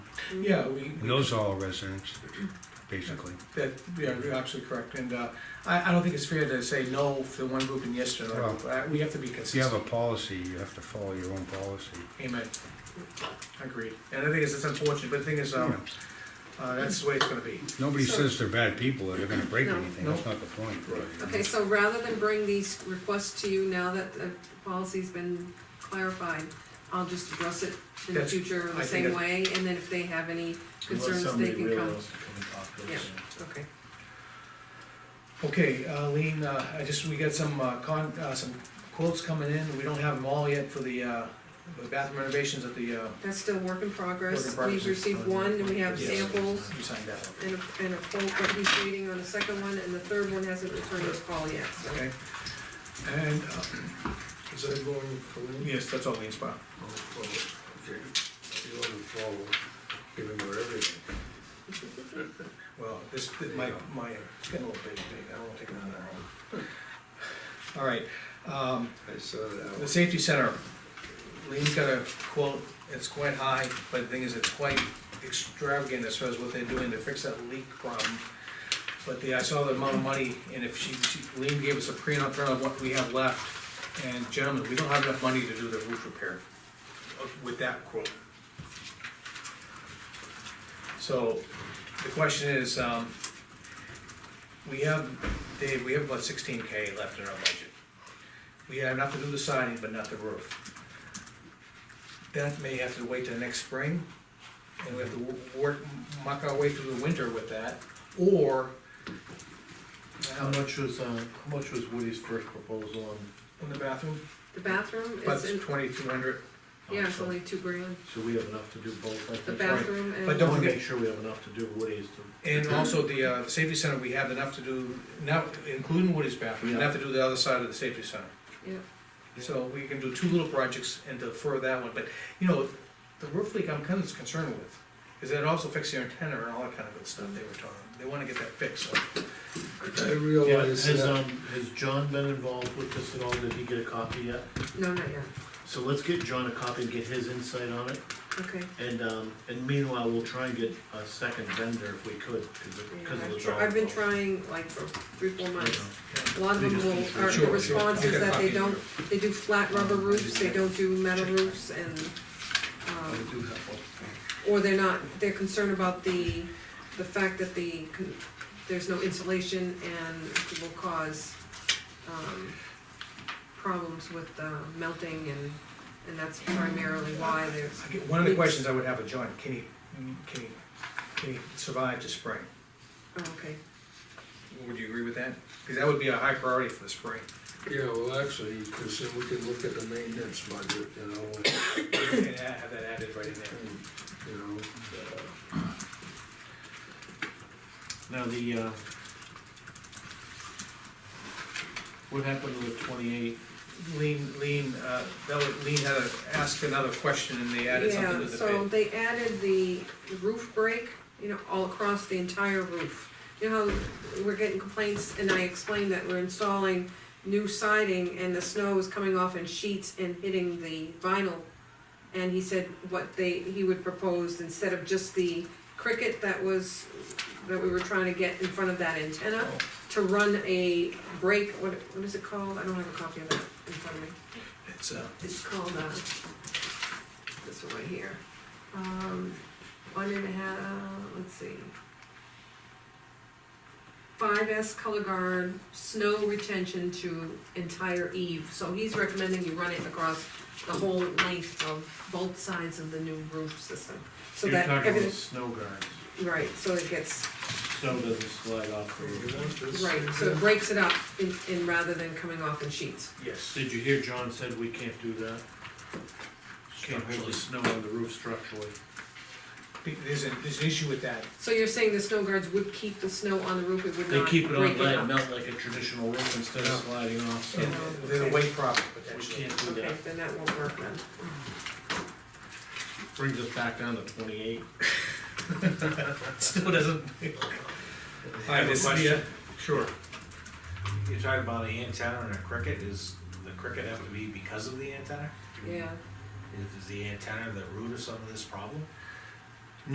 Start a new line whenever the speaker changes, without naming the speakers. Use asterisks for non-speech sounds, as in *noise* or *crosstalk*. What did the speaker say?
Yeah, we,
And those are all residents, basically.
that, yeah, you're absolutely correct, and, uh, I, I don't think it's fair to say no for one group and yes to another group, Uh, we have to be
If you have
consistent.
a policy, you have to follow your own policy.
Amen. Agreed, and the thing is, it's unfortunate, but the thing is, um, uh, that's the way it's gonna be.
Nobody
So-
says they're bad people or they're gonna break
No.
anything, that's not the point. Right.
Okay, so rather than bring these requests to you now that the policy's been clarified, I'll just address it in the
That's-
future
I
the
think
same
that's-
way, and then if they have any
Unless
concerns,
somebody
they can
really
come.
wants to come and talk to us,
Yeah.
you know.
Okay,
Okay, uh, Lean, uh, I just, we got some, uh, con, uh, some quotes coming in, we don't have them all yet for the, uh, the bathroom renovations at the, uh,
that's still work in
Work in
progress.
progress. Uh,
We've received one, and we have
Yes.
samples
you signed that one,
and a, and a quote, but he's waiting on the second one, and the third one hasn't returned his call yet, so.
okay? And, uh,
Is that going for them?
yes, that's all Lean's part.
Oh, well, okay. You want to follow, give him her everything.
Well, this, th- my, my, it's getting a little big, big, I don't wanna take another hour. All right, um,
I saw that
the
one.
safety center, Lean's got a quote, it's quite high, but the thing is, it's quite extravagant as far as what they're doing to fix that leak problem. But the, I saw the amount of money, and if she, she, Lean gave us a pre and upfront of what we have left, and gentlemen, we don't have enough money to do the roof repair uh, with that quote. So, the question is, um, we have, Dave, we have about sixteen K left in our budget. We have enough to do the siding, but not the roof. That may have to wait till next spring, and we have to wo- work, muck our way through the winter with that, or.
How much was, uh, how much was Woody's first proposal on,
In the bathroom,
The bathroom
but
is in,
twenty-two hundred,
yeah, it's only two grand,
so we have enough to do both, I think?
the bathroom and.
But
I
don't-
wanna make sure we have enough to do Woody's to.
and also the, uh, safety center, we have enough to do, now, including Woody's bathroom, enough to do the other side of the safety center.
Yeah,
So we can do two little projects and defer that one, but, you know, the roof leak I'm kind of concerned with, is that it also affects your antenna and all that kind of good stuff they were talking, they wanna get that fixed, so.
I
Yeah,
realize
has,
that.
um, has John been involved with this at all, did he get a copy yet?
no, not yet,
So let's get John a copy and get his insight on it,
okay.
and, um, and meanwhile, we'll try and get a second vendor if we could, cause of, cause
Yeah,
of the
I've
dollar.
tr- I've been
bill.
trying like for three, four
You
months.
know.
A lot of
They
them
just need
will,
to-
are,
Sure,
the
sure.
response
I'll
is
get a
that
copy
they
of
don't,
your-
they do flat rubber roofs, they don't do metal roofs and,
I
um,
do have one.
or they're not, they're concerned about the, the fact that the, con- there's no insulation and it will cause, um, problems with, uh, melting and, and that's primarily why there's,
I get- One of the questions I would have of John, can he, can he, can he survive to spring?
oh, okay.
Would you agree with that? Because that would be a high priority for the spring. *coughs*
Yeah, well, actually, because then we can look at the maintenance budget, you know, and,
And a- have that added right in there.
you know, uh,
Now, the, uh, what happened to the twenty-eight?
Lean, Lean, uh, that was- Lean had to ask another question and they added something to
Yeah, so
the
they added the roof break, you know, all across the entire roof. You know how we're getting complaints, and I explained that we're installing new siding and the snow is coming off in sheets and hitting the vinyl. And he said what they, he would propose, instead of just the cricket that was, that we were trying to get in front of that antenna,
Oh.
to run a break, what, what is it called? I don't have a copy of that in front of me.
bid. It's, uh,
It's called, uh, this one right here. Um, one and a half, let's see. Five S color guard, snow retention to entire eve, so he's recommending you run it across the whole length of both sides of the new roof system. So
You're
that
talking about
everything,
snow guards,
right, so it gets,
snow doesn't slide off the
you
roof.
want this?
right, so it breaks it up in, in rather than coming off in sheets.
yes.
Did you hear John said we can't do that? Can't hold the snow on the roof structurally.
There's an, there's an issue with that.
So you're saying the snow guards would keep the snow on the roof, it would
They
not break
keep
it
it
up?
on, let it melt like a traditional roof instead of
Yeah.
sliding off, so
And there's a weight problem
we
potentially.
can't do
Okay,
that.
then that won't work then.
Brings us back down to twenty-eight.
Still doesn't.
I have a
This- uh,
question.
yeah, Sure.
You're talking about the antenna and a cricket, is the cricket have to be because of the antenna?
Yeah,
Is the antenna the root of some of this problem?